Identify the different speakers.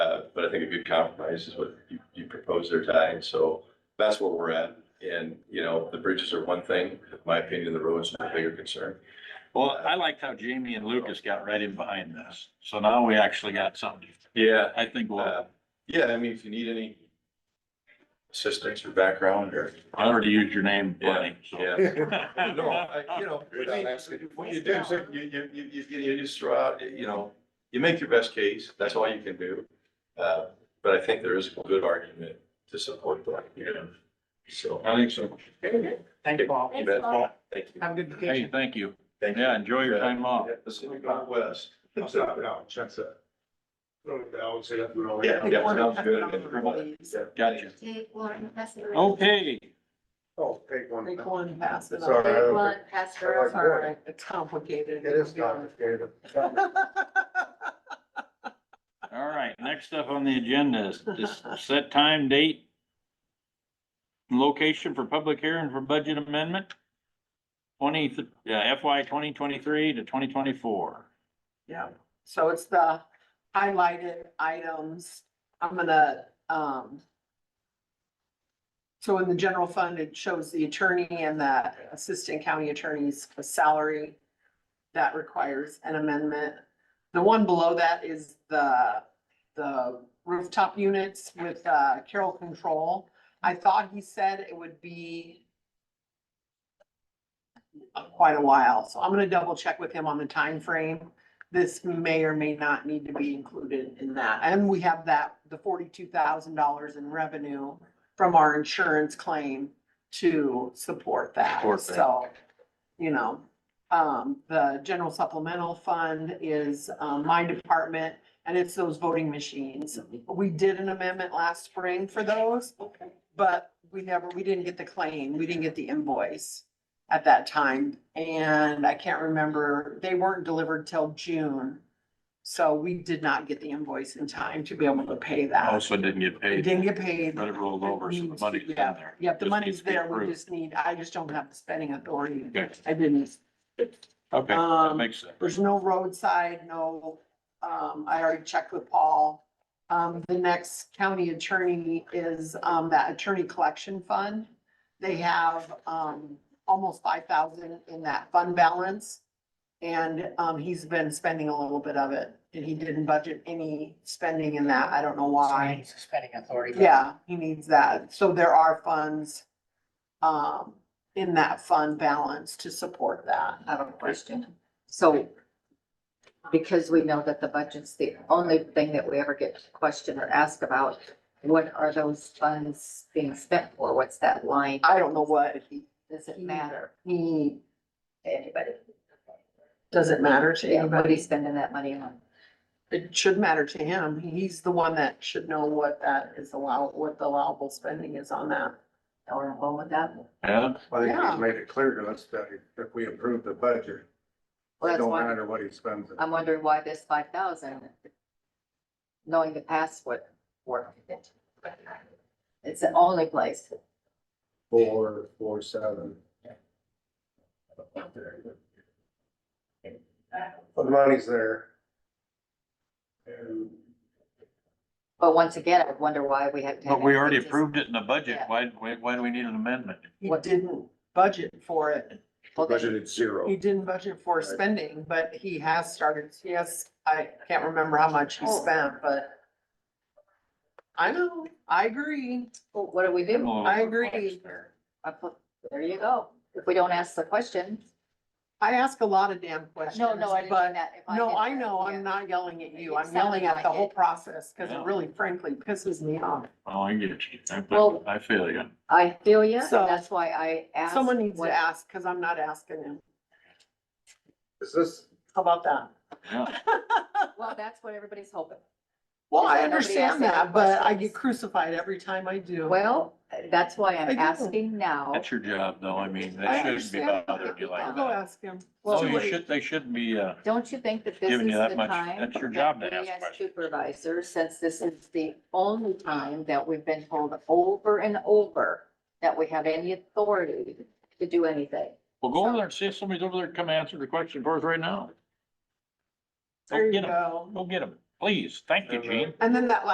Speaker 1: Uh, think a good compromise is what you, you propose there, Ty, and so that's where we're at. And, you know, the bridges are one thing, in my opinion, the roads are a bigger concern.
Speaker 2: Well, I liked how Jamie and Lucas got right in behind this. So now we actually got something.
Speaker 1: Yeah,
Speaker 2: I think we'll,
Speaker 1: uh, yeah, I mean, if you need any assistance or background or,
Speaker 2: I already used your name, Bernie, so.
Speaker 1: yeah. No, I, you know, I mean, what you do, is you, you, you, you, you just throw out, you know, you make your best case, that's all you can do. Uh, but I think there is a good argument to support that, you know, so.
Speaker 2: I think so.
Speaker 3: Thank you all.
Speaker 1: You bet.
Speaker 4: Thanks, Paul.
Speaker 1: Thank you.
Speaker 3: Have a good
Speaker 2: Hey,
Speaker 3: vacation.
Speaker 2: thank you.
Speaker 1: Thank you.
Speaker 2: Yeah, enjoy your time off.
Speaker 1: Yeah, Let's see if we go west. Yeah,
Speaker 5: That's a.
Speaker 1: yeah, sounds good.
Speaker 2: Gotcha.
Speaker 4: Take one, pass it around.
Speaker 2: Okay,
Speaker 5: Oh, take one.
Speaker 3: Make one pass. it
Speaker 5: It's
Speaker 3: on.
Speaker 5: all right.
Speaker 4: Take one, pass it
Speaker 5: All right.
Speaker 4: around.
Speaker 3: Sorry, it's complicated.
Speaker 5: It is complicated.
Speaker 2: all right. Next up on the agenda is this set time, date, location for public hearing for budget amendment. Twenty, uh, FY twenty twenty-three to twenty twenty-four.
Speaker 3: Yeah, so it's the highlighted items. I'm gonna, um. So in the general fund, it shows the attorney and the assistant county attorney's salary. That requires an amendment. The one below that is the, the rooftop units with, uh, Carroll Control. I thought he said it would be quite a while, so I'm gonna double check with him on the time frame this may or may not need to be included in that. And we have that, the forty-two thousand dollars in revenue from our insurance claim to support that.
Speaker 2: Support that.
Speaker 3: So, you know, um, the general supplemental fund is, um, my department and it's those voting machines. We did an amendment last spring for those, but we never, we didn't get the claim, we didn't get the invoice at that time, and I can't remember, they weren't delivered till June. So we did not get the invoice in time to be able to pay that.
Speaker 2: Also didn't get
Speaker 3: We
Speaker 2: paid.
Speaker 3: didn't get paid.
Speaker 2: But it rolled over, so the money's in
Speaker 3: Yeah,
Speaker 2: there.
Speaker 3: Yep, the
Speaker 2: Just needs
Speaker 3: money's
Speaker 2: to be
Speaker 3: there, we
Speaker 2: approved.
Speaker 3: just need, I just don't have the spending authority.
Speaker 2: Okay.
Speaker 3: I didn't,
Speaker 2: Okay, that
Speaker 3: Um,
Speaker 2: makes sense.
Speaker 3: there's no roadside, no, um, I already checked with Paul. Um, the next county attorney is, um, that attorney collection fund. They have, um, almost five thousand in that fund balance. And, um, he's been spending a little bit of it and he didn't budget any spending in that. I don't know why.
Speaker 4: Suspending authority.
Speaker 3: Yeah, he needs that. So there are funds um in that fund balance to support that. I don't
Speaker 4: Question. So because we know that the budget's the only thing that we ever get to question or ask about, what are those funds being spent for? What's that line?
Speaker 3: I don't know what he,
Speaker 4: Does it matter
Speaker 3: he,
Speaker 4: to anybody?
Speaker 3: doesn't matter to
Speaker 4: Yeah, What are you
Speaker 3: anybody.
Speaker 4: spending that money on?
Speaker 3: It should matter to him. He's the one that should know what that is allowed, what the allowable spending is on that.
Speaker 4: Or home with that?
Speaker 2: Yeah,
Speaker 5: I think
Speaker 3: Yeah.
Speaker 5: he's made it clear to us that if we approve the budget,
Speaker 4: Well,
Speaker 5: it
Speaker 4: that's
Speaker 5: don't
Speaker 4: why Uh,
Speaker 5: matter what he spends it.
Speaker 4: I'm wondering why this five thousand, knowing the password work. It's the only place.
Speaker 5: Four, four, seven. But the money's there. And
Speaker 4: But once again, I wonder why we have. to have
Speaker 2: but we already
Speaker 4: it.
Speaker 2: approved it in the budget.
Speaker 4: Yeah.
Speaker 2: Why, why, why do we need an amendment?
Speaker 3: He
Speaker 4: What-
Speaker 3: didn't budget for it.
Speaker 4: Well, then-
Speaker 5: budgeted zero.
Speaker 3: He didn't budget for spending, but he has started, yes, I can't remember how much
Speaker 4: Oh.
Speaker 3: he spent, but I know, I agree.
Speaker 4: well, What do we do?
Speaker 2: Oh,
Speaker 3: I agree.
Speaker 4: I put- There you go. If we don't ask the question.
Speaker 3: I ask a lot of damn questions.
Speaker 4: No, no, I didn't mean
Speaker 3: but-
Speaker 4: that. If
Speaker 3: No,
Speaker 4: did
Speaker 3: I
Speaker 4: that,
Speaker 3: know,
Speaker 4: yeah.
Speaker 3: I'm not yelling at you.
Speaker 4: It
Speaker 3: I'm yelling
Speaker 4: sounded
Speaker 3: at the
Speaker 4: like
Speaker 3: whole
Speaker 4: it.
Speaker 3: process because
Speaker 2: Yeah.
Speaker 3: it really frankly pisses me off.
Speaker 2: Oh, I get you. I-
Speaker 4: Well-
Speaker 2: I feel you.
Speaker 4: I feel you, and
Speaker 3: So-
Speaker 4: that's why I asked.
Speaker 3: Someone needs
Speaker 4: what-
Speaker 3: to ask because I'm not asking him.
Speaker 5: Is this,
Speaker 3: How about that?
Speaker 2: Yeah.
Speaker 4: Well, that's what everybody's hoping.
Speaker 3: Well,
Speaker 4: Because
Speaker 3: I
Speaker 4: nobody
Speaker 3: understand
Speaker 4: asks any
Speaker 3: that, but I
Speaker 4: questions.
Speaker 3: get crucified every time I do.
Speaker 4: Well, that's why
Speaker 3: I
Speaker 4: I'm
Speaker 3: do.
Speaker 4: asking now.
Speaker 2: That's your job though. I mean,
Speaker 3: I
Speaker 2: they shouldn't be
Speaker 3: understand.
Speaker 2: bothering you
Speaker 3: I'll
Speaker 2: like
Speaker 3: go
Speaker 2: that.
Speaker 3: ask him.
Speaker 2: No,
Speaker 4: Well,
Speaker 2: you
Speaker 4: wait.
Speaker 2: should, they shouldn't be, uh,
Speaker 4: Don't you think that this is
Speaker 2: Giving you that
Speaker 4: the
Speaker 2: much-
Speaker 4: time?
Speaker 2: that's your
Speaker 4: that
Speaker 2: job to
Speaker 4: we
Speaker 2: ask
Speaker 4: as
Speaker 2: questions.
Speaker 4: Supervisor, since this is the only time that we've been told over and over that we have any authority to do anything.
Speaker 2: well, go over there and see if somebody's over there to come answer the question for us right now.
Speaker 3: There
Speaker 2: Go
Speaker 3: you
Speaker 2: get them.
Speaker 3: go.
Speaker 2: Go get them. Please. Thank you,
Speaker 5: And, uh,
Speaker 2: Gene.
Speaker 3: And then that